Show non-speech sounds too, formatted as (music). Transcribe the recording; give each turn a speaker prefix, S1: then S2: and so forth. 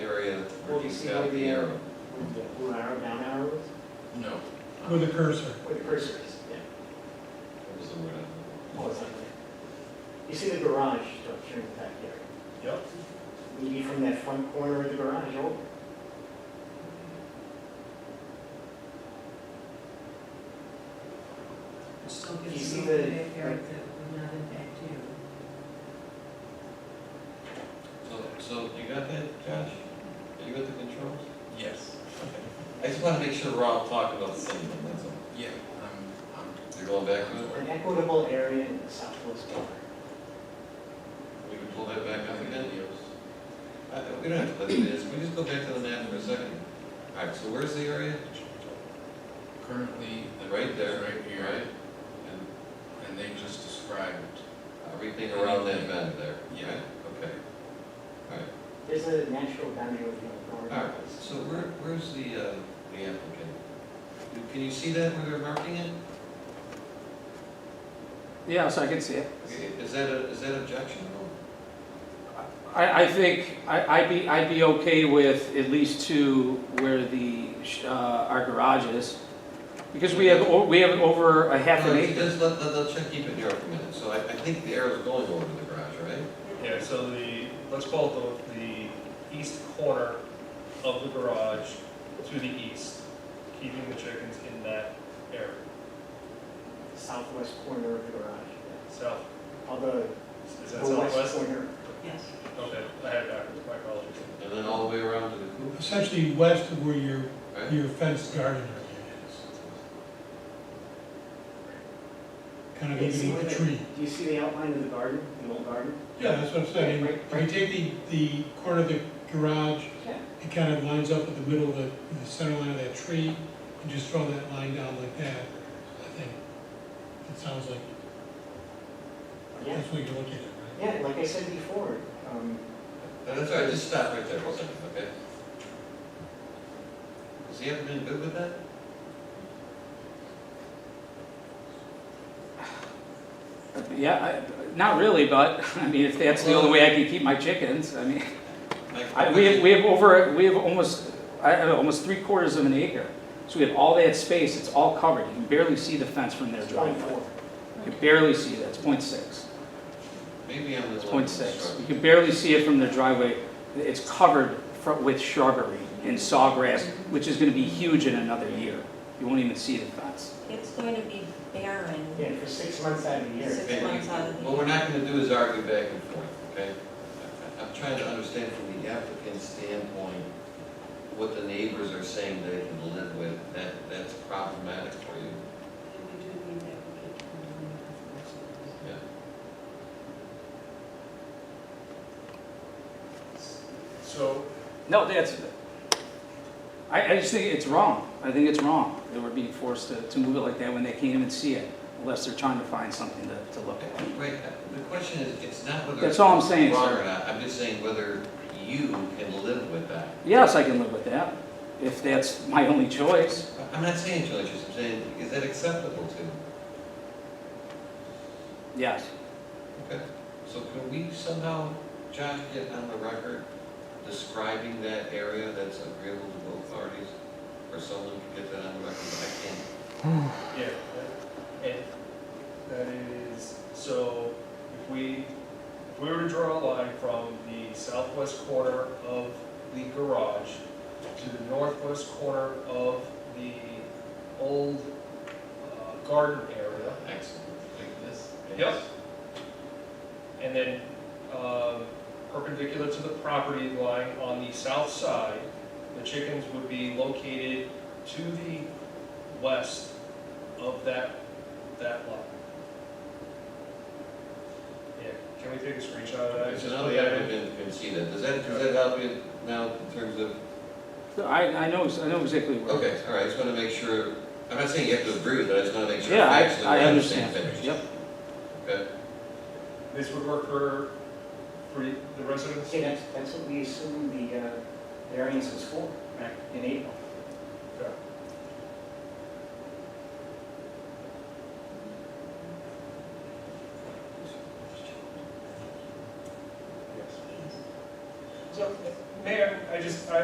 S1: Do you see where the arrow,
S2: With the blue arrow, down arrow is,
S3: No.
S4: with a cursor.
S2: where the cursor is, yeah.
S1: what was the word? I'm
S2: Oh, it's on there. You see the garage structure in the backyard?
S3: Yep.
S2: Maybe from that front corner of the garage oh, over.
S5: Still
S2: You
S5: gives
S2: see
S5: you a
S2: the-
S5: backyard that would not impact you.
S1: So, so you got that, Josh? You got the controls?
S3: Yes.
S1: I just wanna make sure we're all talking about the same thing, that's all.
S3: Yeah, I'm, I'm,
S1: You're going back to it?
S2: An equitable area in the southwest corner.
S1: We can pull that back up again, Uh, we don't have to let it is, we just go back to the map for a second. All right, so where's the area?
S3: currently, the
S1: Right there.
S3: Right here,
S1: Right? And
S3: and they just described.
S1: everything around that bend there?
S3: Yeah.
S1: right? Okay. All right,
S2: There's a natural boundary with the corner.
S1: all right, so where, where's the, uh, the applicant? You- Can you see that where they're marking it?
S6: Yeah, so I can see it.
S1: Okay, Is that a, is that objectionable?
S6: I, I think, I, I'd be, I'd be okay with at least two where the, sh- uh, our garage is. Because we have, o- we have over a half
S1: No,
S6: an
S1: if you
S6: acre.
S1: Just let, let, let check, keep it here for a minute, so I, I think the arrow's going over to the garage, right?
S7: Yeah, so the, let's call it the, the east corner of the garage to the east, keeping the chickens in that area,
S2: Southwest corner of the garage, yeah.
S7: south,
S2: although
S7: is
S2: the
S7: that
S2: west
S7: southwest?
S2: corner,
S5: Yes.
S7: Okay, I had it backwards, my apologies.
S1: And then all the way around to the coop,
S4: Essentially west of where your,
S1: right?
S4: your fenced garden area is. Kind of
S2: Yeah, see
S4: even
S2: where
S4: with
S2: the-
S4: a tree.
S2: do you see the outline of the garden, the old garden?
S4: Yeah, that's what I'm saying.
S2: Right,
S4: If
S2: right.
S4: you take the, the corner of the garage,
S2: Yeah.
S4: it kind of lines up with the middle of the, the center line of that tree, and just throw that line down like that, I think. It sounds like,
S2: Yeah,
S4: that's what you're looking at, right?
S2: yeah, like I said before, um,
S1: No, That's all right, just stop right there, one second, okay? Has he ever been good with that?
S6: Yeah, I, not really, but, (laughs) I mean, if that's the only way I can keep my chickens, I mean,
S1: Like,
S6: I, we have, we have over, we have almost, I don't know, almost three quarters of an acre. So we have all that space, it's all covered, you can barely see the fence from their
S2: it's
S6: driveway.
S2: 24.
S6: You can barely see that, it's point six.
S1: Maybe I'm.
S6: It's point six. You can barely see it from their driveway. It's covered fro- with shrubbery and sawgrass, which is gonna be huge in another year. You won't even see the fence.
S8: It's going to be barren.
S2: Yeah, for six months out of the year.
S8: Six months out of the
S1: What we're not gonna do is argue back and forth, okay? I- I'm trying to understand from the applicant's standpoint, what the neighbors are saying they can live with, that, that's problematic for you.
S5: We do need that. we could, um,
S1: Yeah.
S7: So,
S6: No, that's, I, I just think it's wrong. I think it's wrong that we're being forced to, to move it like that when they can't even see it, unless they're trying to find something to, to look at.
S1: Right, uh, the question is, it's not whether.
S6: That's all I'm saying,
S1: it's Wrong
S6: sir.
S1: or not, I'm just saying whether you can live with that.
S6: Yes, I can live with that, if that's my only choice.
S1: I'm not saying villages, I'm saying, is that acceptable to? you?
S6: Yes.
S1: Okay. So can we somehow, Josh, get on the record describing that area that's agreeable to both parties? Or someone can get that on the record, but I can't.
S7: yeah, that- and that is, so if we, if we were to draw a line from the southwest corner of the garage to the northwest corner of the old uh, garden area,
S1: Excellent. Like this?
S7: Yep. and then um, perpendicular to the property line on the south side, the chickens would be located to the west of that, that lot. Yeah, can we take a screenshot of that?
S1: So now the applicant can see that. Does that, does that help you now in terms of,
S6: I, I know, I know exactly where. it is.
S1: okay, all right, I just want to make sure, I'm not saying you have to agree with it, I just want to make sure.
S6: Yeah,
S1: factually
S6: I, I
S1: we're on the same
S6: understand.
S1: page.
S6: Yep.
S1: Okay,
S7: This would work for, for the residents?
S2: See, that's, that's what we assumed the uh, variance was for, back in April.